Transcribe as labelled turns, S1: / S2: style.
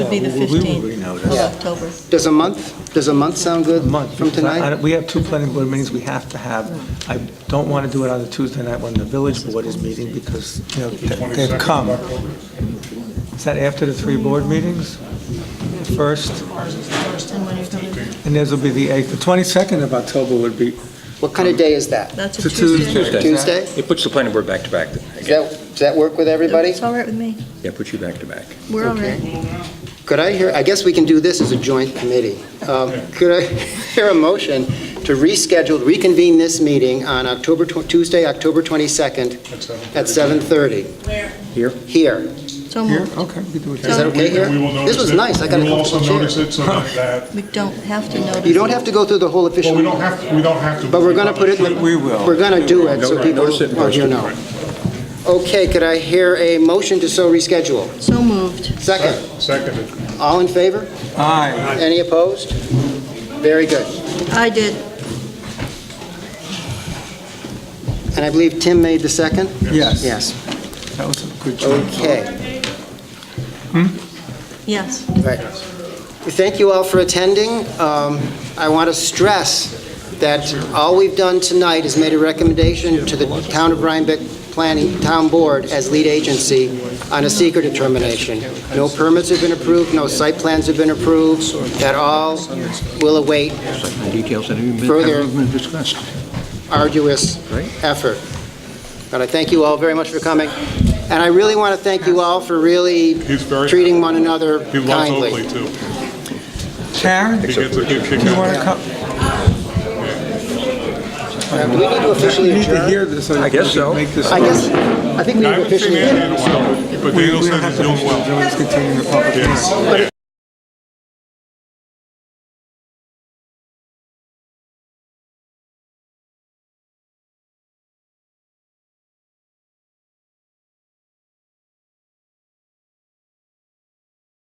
S1: be the
S2: We will
S1: 15th of
S2: renotice.
S1: October.
S3: Does a month, does a month sound good
S2: A month.
S3: from
S2: because I- I
S3: tonight?
S2: don't- We have two planning board meetings we have to have. I don't want to do it on the Tuesday night when the village board is meeting because, you know, they- they've come. Is that after the three board meetings? First? And theirs will be the 8th. The 22nd of October would be
S3: What kind of day is that?
S1: That's
S2: to
S1: a Tuesday.
S2: Tuesday.
S3: Tuesday?
S4: It puts the planning board back to back.
S3: Does that, does that work with everybody?
S1: It's all right with me.
S4: Yeah, puts you back to back.
S1: We're all
S3: Okay.
S1: right.
S3: Could I hear, I guess we can do this as a joint committee. Um, Could I hear a motion to reschedule, reconvene this meeting on October, tw- Tuesday, October 22nd at 7:30? Where?
S4: Here.
S3: Here.
S1: So
S2: Here,
S1: moved.
S2: okay, we do it.
S3: Is that okay here?
S5: We will
S3: This
S5: notice
S3: was
S5: it.
S3: nice, I got a
S5: We will
S3: couple
S5: also
S3: of
S5: notice
S3: chairs.
S5: it so that- that,
S1: We don't have to notice.
S3: You don't have to go through the whole official...
S5: well, we don't have, to- we don't have to.
S3: But we're going to put it, in the-
S2: We will.
S3: we're going to do it, so
S4: Notice
S3: people,
S4: it and
S3: oh, you
S4: post it.
S3: know. Okay, could I hear a motion to so reschedule?
S1: So moved.
S3: Second,
S5: Seconded.
S3: all in favor?
S2: Aye.
S3: Any opposed? Very good.
S1: I did.
S3: And I believe Tim made the second?
S2: Yes.
S3: Yes,
S2: That was a good choice.
S3: okay,
S1: Yes.
S3: right. Thank you all for attending. Um, I want to stress that all we've done tonight is made a recommendation to the Town of Rhinebeck Planning Town Board as lead agency on a seeker determination. No permits have been approved, no site plans have been approved, that all will await
S4: Details that haven't
S3: Further- haven't
S4: been discussed.
S3: arduous
S4: Right.
S3: effort. But I thank you all very much for coming, and I really want to thank you all for really
S5: He's very-
S3: treating one another
S5: He loves Oakley,
S3: kindly.
S5: too.
S2: Karen,
S5: He gets a good kick
S2: you
S5: out
S2: want
S5: of
S2: to
S5: it.
S2: come?
S3: Uh, Do we need to
S2: We
S3: officially
S2: need to
S3: adjourn?
S2: hear this so
S4: I
S2: that we
S4: guess so.
S2: can make this.
S3: I guess, I think we
S5: I
S3: need to
S5: haven't seen
S3: officially
S5: Andy
S3: adjourn.
S5: in a while, but
S2: We
S5: Daniel
S2: we don't
S5: says
S2: have
S5: he's
S2: to
S5: doing
S2: finish the
S5: well.
S2: village continuing the public hearing.
S5: Yeah.